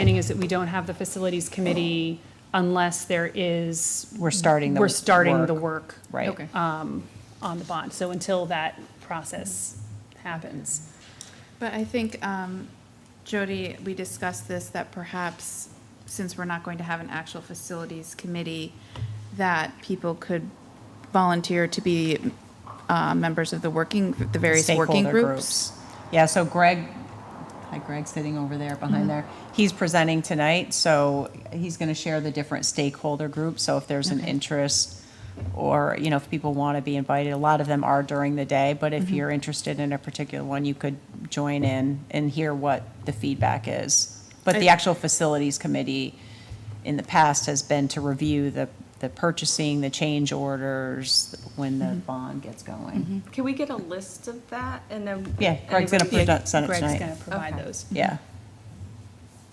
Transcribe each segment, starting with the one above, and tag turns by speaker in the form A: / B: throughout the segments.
A: understanding is that we don't have the facilities committee unless there is,
B: We're starting the
A: we're starting
B: work.
A: the work um,
B: Right.
C: Okay.
A: on the bond. So until that process happens.
C: But I think, um, Jody, we discussed this, that perhaps, since we're not going to have an actual facilities committee, that people could volunteer to be uh, members of the working, the various working
B: stakeholder
C: groups.
B: Yeah, so Greg, hi Greg, sitting over there
C: Mm-hmm.
B: behind there, he's presenting tonight, so he's going to share the different stakeholder groups. So if there's an interest or, you know, if people want to be invited, a lot of them are during the day, but
C: Mm-hmm.
B: if you're interested in a particular one, you could join in and hear what the feedback is. But the
C: I-
B: actual facilities committee in the past has been to review the, the purchasing, the change orders, when the
C: Mm-hmm.
B: bond gets going.
D: Can we get a list of that and then?
B: Yeah, Greg's
D: and
B: gonna
D: if we-
B: present, send it
A: Greg's
B: tonight.
A: going to provide
D: Okay.
A: those.
B: Yeah.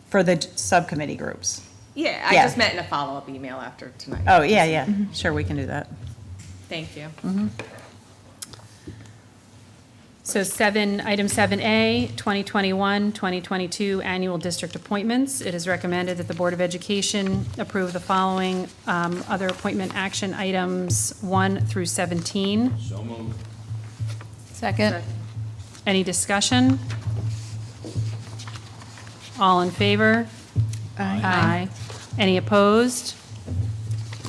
B: For the d- subcommittee groups.
D: Yeah, I
B: Yeah.
D: just meant in a follow-up email after tonight.
B: Oh, Mm-hmm. yeah, yeah, sure, we can do that.
D: Thank you.
A: So seven, item seven A, 2021, 2022 annual district appointments. It is recommended that the Board of Education approve the following um, other appointment action items, one through 17.
B: Second.
A: Any discussion? All in favor? Aye. Any opposed?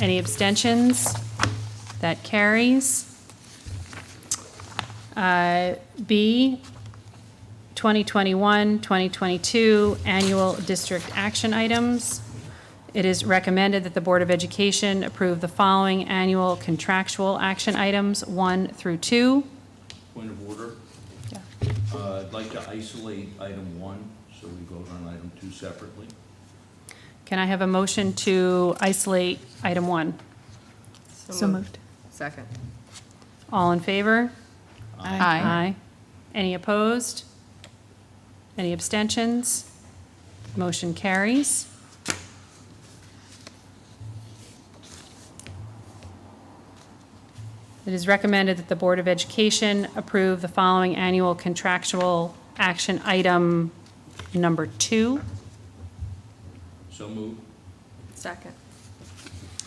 A: Any abstentions? That carries. Uh, B, 2021, 2022 Annual District Action Items. It is recommended that the Board of Education approve the following annual contractual action items, one through two.
E: Point of order. Uh, I'd like to isolate item one, so we vote on item two separately.
A: Can I have a motion to isolate item one?
C: So moved.
D: Second.
A: All in favor?
C: Aye.
A: Any opposed? Any abstentions? Motion carries. It is recommended that the Board of Education approve the following annual contractual action item number two.
E: So move.
D: Second.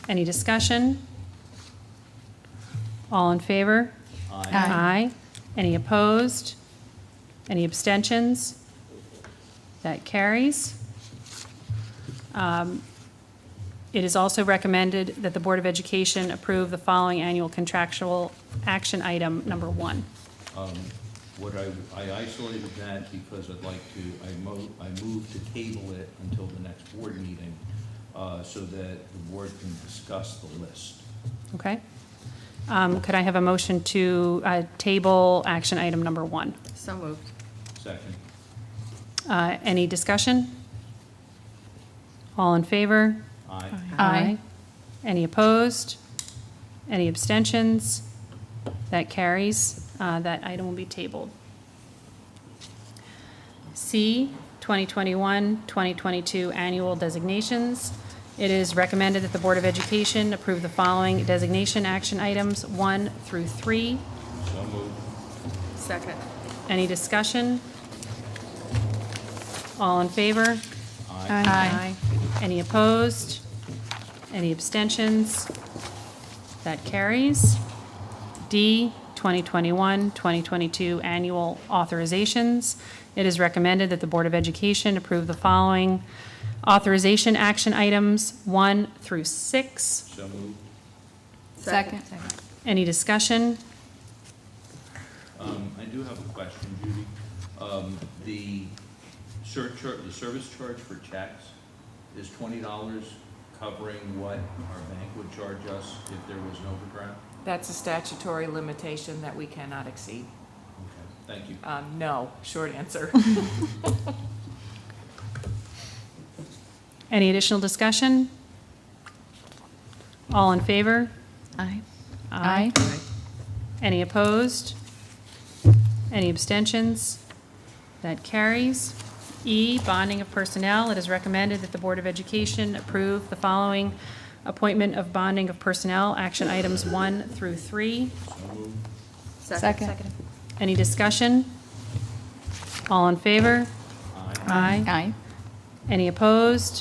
A: Any discussion? All in favor?
E: Aye.
A: Aye. Any opposed? Any abstentions? That carries. Um, It is also recommended that the Board of Education approve the following annual contractual action item number one.
E: What I, I isolated that because I'd like to, I mo, I move to table it until the next board meeting, uh, so that the board can discuss the list.
A: Okay? Um, Could I have a motion to uh, table action item number one?
D: So moved.
E: Second.
A: Uh, Any discussion? All in favor?
E: Aye.
A: Aye. Any opposed? Any abstentions? That carries. Uh, That item will be tabled. C, 2021-2022 Annual Designations. It is recommended that the Board of Education approve the following designation action items, one through three.
E: So move.
D: Second.
A: Any discussion? All in favor? Aye.
E: Aye.
A: Any opposed? Any abstentions? That carries. D, 2021-2022 Annual Authorizations. It is recommended that the Board of Education approve the following authorization action items, one through six.
E: So move.
D: Second.
A: Any discussion?
E: Um, I do have a question, Judy. Um, the surcharge, the service charge for checks is twenty dollars covering what our bank would charge us if there was an overdraft?
F: That's a statutory limitation that we cannot exceed.
E: Okay, thank you.
F: Um, no, short answer.
A: Any additional discussion? All in favor?
C: Aye.
A: Aye. Any opposed? Any abstentions? That carries. E, bonding of personnel. It is recommended that the Board of Education approve the following appointment of bonding of personnel, action items one through three.
C: Second.
A: Any discussion? All in favor?
E: Aye.
A: Aye.
C: Aye.
A: Any opposed?